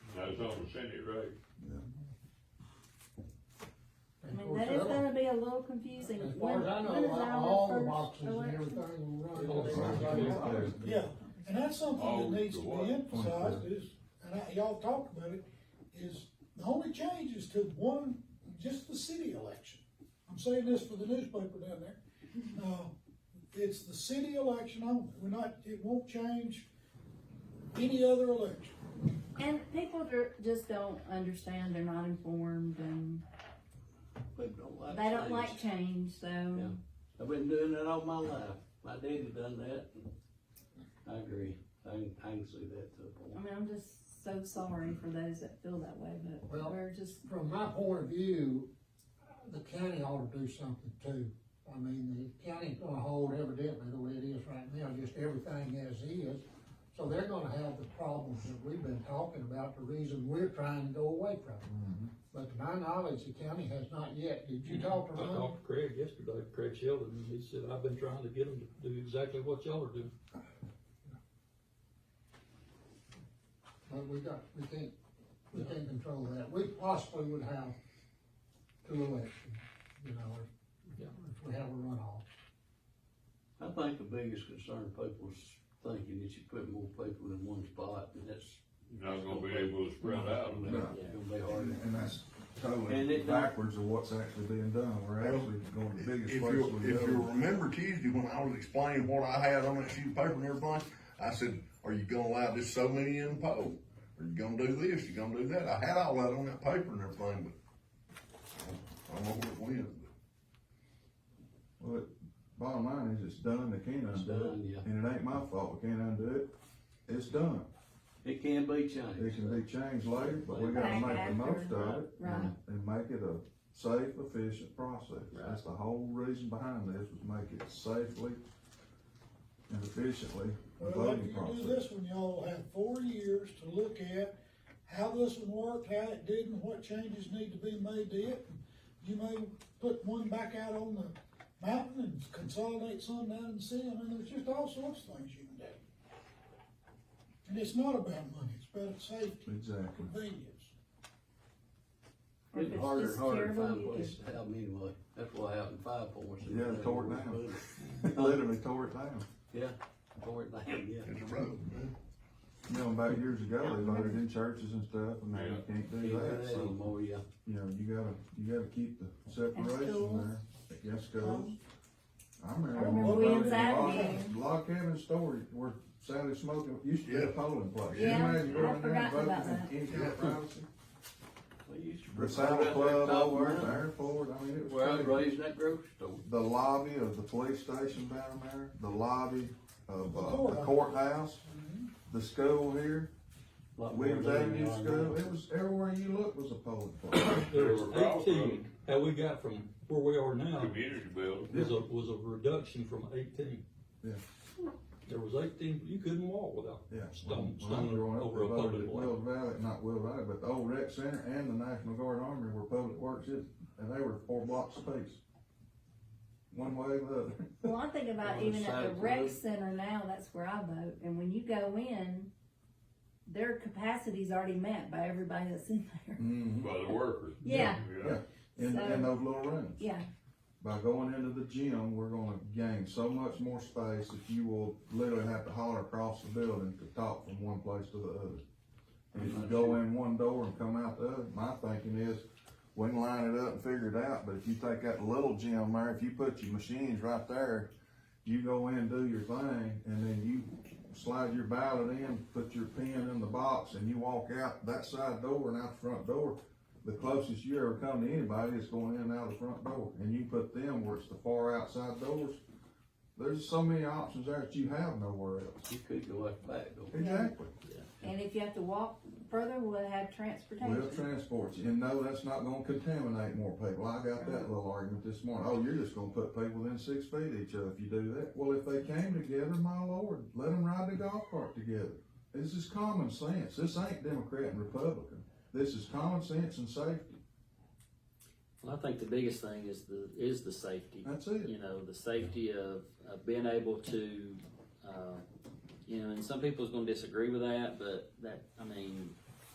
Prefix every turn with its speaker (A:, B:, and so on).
A: on Cindy Road.
B: I mean, that is gonna be a little confusing.
C: As
B: When-
C: far as I
B: when
C: know,
B: is our
C: all the
B: first
C: boxes and
B: election?
C: everything will run.
D: Right.
E: Yeah, and that's something
A: Oh,
E: that needs to
A: the what?
E: be emphasized is, and I, y'all talked about it, is the only change is to one, just the city election. I'm saying this for the newspaper down there. Uh, it's the city election only. We're not, it won't change any other election.
B: And people are- just don't understand, they're not informed, and they don't like change,
F: Yeah.
B: so.
F: I've been doing it all my life. My daddy done that. I agree. I can, I can see that to a
B: I
F: point.
B: mean, I'm just so sorry for those that feel that way, but
C: Well-
B: we're just,
C: From my point of view, the county ought to do something too. I mean, the county's gonna hold evidently the way it is right now, just everything as is. So they're gonna have the problems that we've been talking about, the reason we're trying to go away from it. But to my knowledge, the county has not yet, did you talk to
D: I
C: Ron?
D: talked to Craig yesterday, Craig Sheldon, and he said, I've been trying to get them to do exactly what y'all are doing.
C: But we got, we can't, we can't control that. We possibly would have two elections, you know, if,
D: Yeah.
C: if we have a runoff.
F: I think the biggest concern people's thinking that you put more people in one spot and that's.
A: Not gonna be able to spread out.
F: It's
A: now.
F: gonna be hard.
D: Yeah.
G: And that's
F: And
G: totally
F: it don't-
G: backwards of what's actually being done, we're actually going to the
H: If
G: biggest
H: you,
G: place
H: will
G: we
H: if you
G: go.
H: remember Tuesday when I was explaining what I had on that sheet of paper and everything, I said, are you gonna allow just so many in the poll? Are you gonna do this, you gonna do that? I had all that on that paper and everything, but I don't know where it went.
G: Well, it- bottom line is, it's done, they can't
F: It's done,
G: undo
F: yeah.
G: it, and it ain't my fault, we can't undo it, it's done.
F: It can be
G: It
F: changed.
G: can be changed later, but we gotta
B: Back
G: make the
B: after,
G: most of it,
B: right.
G: and- and make it a safe, efficient process. That's the whole reason behind this, was make it safely and efficiently a
E: Well,
G: voting
E: if you do this
G: process.
E: one, y'all have four years to look at how this one worked, how it didn't, what changes need to be made to it. You may put one back out on the mountain and consolidate some down and see, I mean, there's just all sorts of things you can do. And it's not about money, it's about safety,
G: Exactly.
E: convenience.
B: or if
F: It's
B: it's
F: harder
B: just
F: and harder to
B: terrible,
F: find
B: you
F: places
B: could.
F: to have them anyway. That's what happened in Five Points.
G: Yeah, they tore it down. Literally tore it down.
F: Yeah, tore it down, yeah.
H: It's a road, man.
G: You know, about years ago, they voted in churches and stuff, and now you
A: Yeah.
G: can't
F: Can't
G: do
F: do
G: that,
F: that
G: so,
F: anymore, yeah.
G: you know, you gotta, you gotta keep the separation
B: schools. Um,
G: there. Yes, schools. I remember.
B: remember
G: one
B: we
G: vote in
B: inside
G: Lock-
B: meeting.
G: Lock Cabin Story, where Sally Smoking, used to be a
H: Yeah.
G: polling place. You
B: Yeah,
G: imagine
B: I
G: going there and
B: forgot
G: voting
B: about
G: in any kind of privacy?
F: We used to-
G: The Saddle Club over at the
F: Top line.
G: airport, I mean, it
F: Where I
G: was
F: was
G: crazy.
F: raised in that grocery store.
G: The lobby of the police station down there, the lobby of, uh, the
E: Courthouse.
G: courthouse, the school here.
F: Lot more
G: Williams
F: than
G: Avenue
F: they are now.
G: School, it was, everywhere you looked was a polling place.
D: There was
A: They were off-road.
D: eighteen, how we got from where we are now
A: Community building.
D: was a, was a reduction from eighteen.
G: Yeah.
D: There was eighteen, you couldn't walk without
G: Yeah.
D: stone,
G: When I was
D: stone
G: growing up,
D: over a
G: they voted
D: public
G: at
D: way.
G: Will Valley, not Will Valley, but the old rec center and the National Guard Army were public works, it- and they were four blocks apiece. One way or the other.
B: Well, I think about
F: On the
B: even at
F: side
B: the
F: of the
B: rec
F: road.
B: center now, that's where I vote, and when you go in, their capacity's already met by everybody that's in there.
A: By the workers.
B: Yeah.
A: Yeah.
G: In,
B: So-
G: in those little rooms.
B: Yeah,
G: By going into the gym, we're gonna gain so much more space that you will literally have to holler across the building to talk from one place to the other. And if you go in one door and come out the other, my thinking is, we can line it up and figure it out, but if you take that little gym there, if you put your machines right there, you go in, do your thing, and then you slide your ballot in, put your pen in the box, and you walk out that side door and out the front door. The closest you ever come to anybody is going in and out the front door, and you put them where it's the far outside doors. There's so many options there that you have nowhere else.
F: You could go out the back door.
G: Exactly.
B: and if you have to walk further, we'll have
G: We'll
B: transportation.
G: transport you, and no, that's not gonna contaminate more people, I got that little argument this morning, oh, you're just gonna put people within six feet of each other if you do that. Well, if they came together, my lord, let them ride the golf cart together, this is common sense, this ain't Democrat and Republican, this is common sense and safety,
I: Well, I think the biggest thing is the, is the safety.
G: that's it.
I: You know, the safety of, of being able to, uh, you know, and some people's gonna disagree with that, but that, I mean,